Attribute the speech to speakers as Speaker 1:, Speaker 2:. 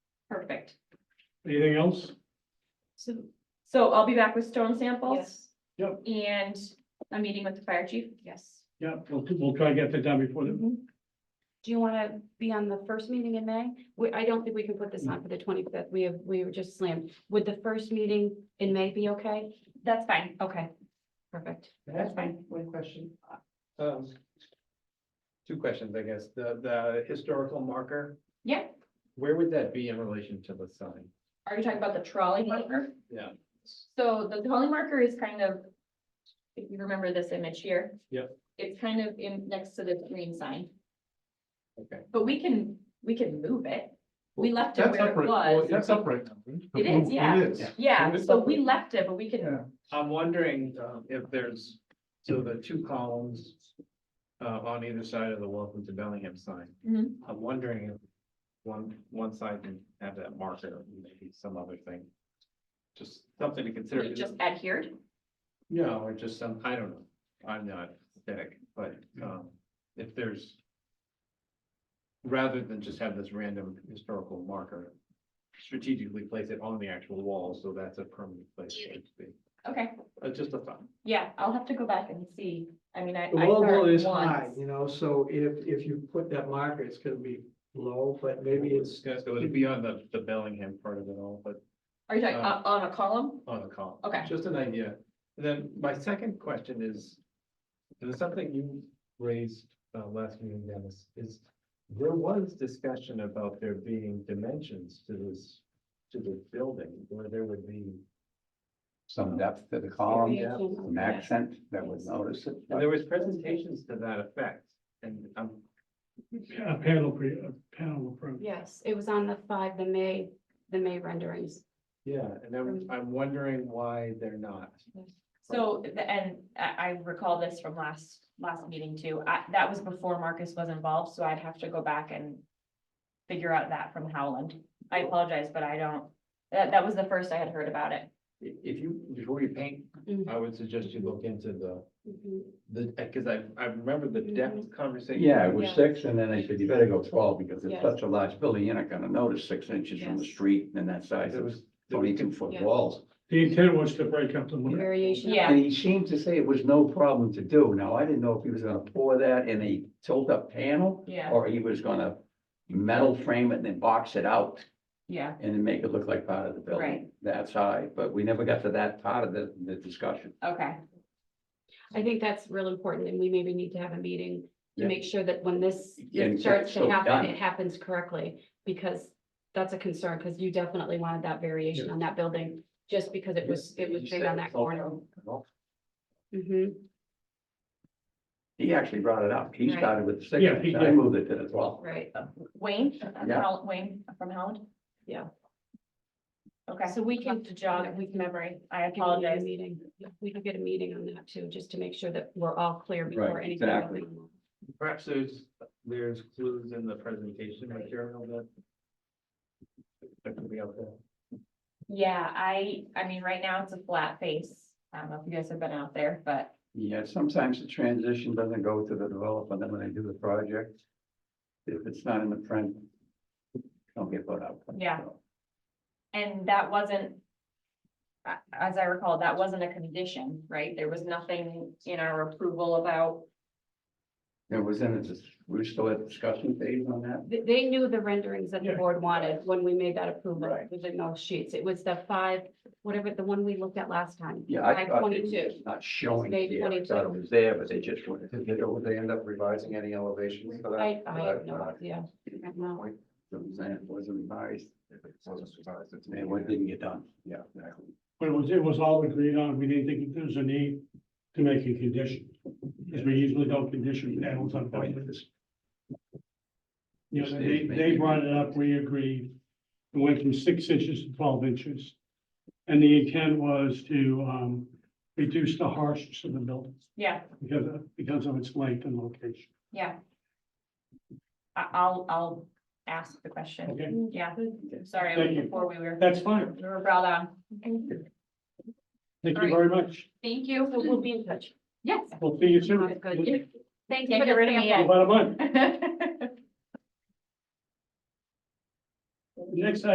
Speaker 1: Perfect.
Speaker 2: Anything else?
Speaker 1: So, so I'll be back with stone samples
Speaker 3: Yes,
Speaker 1: and a meeting with the fire chief.
Speaker 3: yes.
Speaker 2: Yeah, we'll, we'll try to get that done before the,
Speaker 3: Do you want to be on the first meeting in May? We, I don't think we can put this on for the twenty-fifth. We have, we were just slammed. Would the first meeting in May be okay?
Speaker 1: That's fine.
Speaker 3: Okay, perfect.
Speaker 4: That's fine, one question. Um, Two questions, I guess. The, the historical marker,
Speaker 1: Yeah.
Speaker 4: where would that be in relation to the sign?
Speaker 1: Are you talking about the trolley marker?
Speaker 4: Yeah.
Speaker 1: So the trolley marker is kind of, if you remember this image here.
Speaker 4: Yep.
Speaker 1: It's kind of in, next to the green sign,
Speaker 4: Okay.
Speaker 1: but we can, we can move it. We left it
Speaker 5: That's
Speaker 1: where it
Speaker 5: upright. Well,
Speaker 1: was.
Speaker 5: That's upright. now, right? Oh,
Speaker 1: It is, yeah.
Speaker 5: It is.
Speaker 4: Yeah.
Speaker 1: Yeah,
Speaker 5: It's
Speaker 1: so
Speaker 5: upright.
Speaker 1: we left it, but we can,
Speaker 5: Yeah.
Speaker 4: I'm wondering um, if there's, so the two columns uh, on either side of the welcome to Bellingham sign.
Speaker 1: Mhm.
Speaker 4: I'm wondering if one, one side can have that marker, maybe some other thing. Just something to consider.
Speaker 1: we just adhered.
Speaker 4: No, or just some, I don't know, I'm not aesthetic, but um, if there's. Rather than just have this random historical marker, strategically place it on the actual wall, so that's a permanent place for it to be.
Speaker 1: Okay,
Speaker 4: Uh, just a thought.
Speaker 1: yeah, I'll have to go back and see. I mean, I.
Speaker 6: The
Speaker 1: I
Speaker 6: logo
Speaker 1: saw it
Speaker 6: is high,
Speaker 1: once.
Speaker 6: you know, so if, if you put that marker, it's gonna be low, but maybe it's,
Speaker 4: So it'd be on the, the Bellingham part of it all, but
Speaker 1: Are you talking
Speaker 4: Uh,
Speaker 1: on, on a column?
Speaker 4: on the call.
Speaker 1: Okay.
Speaker 4: Just an idea. And then my second question is, and it's something you raised uh last meeting, Dennis, is there was discussion about there being dimensions to this, to this building, where there would be,
Speaker 7: some depth to the column,
Speaker 3: Yeah.
Speaker 7: some accent that would notice it.
Speaker 4: and there was presentations to that effect, and I'm
Speaker 2: a panel, pre- a panel approach.
Speaker 3: Yes, it was on the five, the May, the May renderings.
Speaker 4: yeah, and I'm, I'm wondering why they're not.
Speaker 1: So, the- and I, I recall this from last, last meeting too. I, that was before Marcus was involved, so I'd have to go back and figure out that from Howland. I apologize, but I don't, that, that was the first I had heard about it.
Speaker 4: I- If you, before you paint,
Speaker 3: Mhm.
Speaker 4: I would suggest you look into the,
Speaker 3: Mhm.
Speaker 4: the, because I, I remember the depth conversation.
Speaker 7: Yeah, it was
Speaker 3: Yeah.
Speaker 7: six, and then I said, you better go twelve, because it's
Speaker 3: Yes.
Speaker 7: such a large building, you're not gonna notice six inches from the
Speaker 3: Yes.
Speaker 7: street and that size
Speaker 4: There
Speaker 7: of
Speaker 4: was- there was
Speaker 7: twenty-two foot
Speaker 3: Yeah.
Speaker 7: walls.
Speaker 2: The intent was to break up the limit.
Speaker 3: Variation. of-
Speaker 1: Yeah.
Speaker 7: And he seemed to say it was no problem to do. Now, I didn't know if he was gonna pour that in a tilt-up panel,
Speaker 1: Yeah,
Speaker 7: or he was gonna metal frame it and then box it out
Speaker 1: yeah.
Speaker 7: and then make it look like part of the building.
Speaker 1: Right.
Speaker 7: That's high, but we never got to that part of the, the discussion.
Speaker 1: Okay,
Speaker 3: I think that's real important and we maybe need to have a meeting to
Speaker 7: Yeah.
Speaker 3: make sure that when this
Speaker 7: Yeah, and
Speaker 3: starts
Speaker 7: so
Speaker 3: to happen,
Speaker 7: done.
Speaker 3: it happens correctly. Because that's a concern, because you definitely wanted that variation on that building, just because it was, it was
Speaker 7: He
Speaker 3: big
Speaker 7: said
Speaker 3: on that
Speaker 7: it's all
Speaker 3: corner.
Speaker 7: done. Well,
Speaker 3: hmm
Speaker 7: He actually brought it up. He
Speaker 3: Right.
Speaker 7: started with the
Speaker 2: Yeah, he
Speaker 7: six, I
Speaker 2: did.
Speaker 7: moved it to the twelve.
Speaker 3: right.
Speaker 1: Wayne, uh,
Speaker 7: Yeah.
Speaker 1: Howland- Wayne from Howland?
Speaker 3: Yeah.
Speaker 1: Okay,
Speaker 3: So we can-
Speaker 1: have to jog
Speaker 3: we can-
Speaker 1: memory. I
Speaker 3: I can get a
Speaker 1: apologize.
Speaker 3: Meeting, we can get a meeting on that too, just to make sure that we're all clear before
Speaker 7: Right,
Speaker 3: anything.
Speaker 7: exactly.
Speaker 3: goes
Speaker 4: Perhaps there's, there's clues in the presentation material that. That could be out there.
Speaker 1: Yeah, I, I mean, right now it's a flat face. I don't know if you guys have been out there, but
Speaker 7: Yeah, sometimes the transition doesn't go to the developer, then when they do the project. If it's not in the print. Don't get put out.
Speaker 1: Yeah. And that wasn't. a- As I recall, that wasn't a condition, right? There was nothing in our approval about,
Speaker 7: There was, in it, we're still at discussion phase on that.
Speaker 3: They, they knew the renderings that the
Speaker 2: Yeah.
Speaker 3: board wanted when we made that approval
Speaker 7: Right.
Speaker 3: with the no sheets. It was the five, whatever, the one we looked at last time.
Speaker 7: Yeah, I
Speaker 3: Five
Speaker 7: thought it was
Speaker 3: twenty-two.
Speaker 7: just not showing
Speaker 3: Page
Speaker 7: there. I
Speaker 3: 22.
Speaker 7: thought it was there, but they just wouldn't.
Speaker 5: Did they, would they end up revising any elevations for that?
Speaker 3: I, I have
Speaker 5: Uh,
Speaker 3: no
Speaker 5: uh,
Speaker 3: idea. I don't know.
Speaker 7: So it was- It wasn't revised,
Speaker 5: if it wasn't revised, it's-
Speaker 7: and what didn't get done. Yeah, exactly.
Speaker 2: But it was, it was all agreed on. We didn't think there was a need to make a condition. Because we usually don't condition panels on buildings. You know, they, they brought it up, we agreed. It went from six inches to twelve inches. And the intent was to, um, reduce the harshness of the building
Speaker 1: yeah,
Speaker 2: because of, because of its length and location.
Speaker 1: yeah. I, I'll, I'll ask the question.
Speaker 2: Okay,
Speaker 1: Yeah, sorry,
Speaker 2: Thank you.
Speaker 1: before we were,
Speaker 2: that's fine.
Speaker 1: we were brought on.
Speaker 2: Thank you very much.
Speaker 1: Thank you.
Speaker 3: So we'll be in touch.
Speaker 1: Yes,
Speaker 2: We'll see you soon.
Speaker 3: Sounds good.
Speaker 1: thank you.
Speaker 3: you for
Speaker 1: Get
Speaker 3: the
Speaker 1: rid of me.
Speaker 3: sample.
Speaker 2: About a month.
Speaker 1: yet.
Speaker 2: Next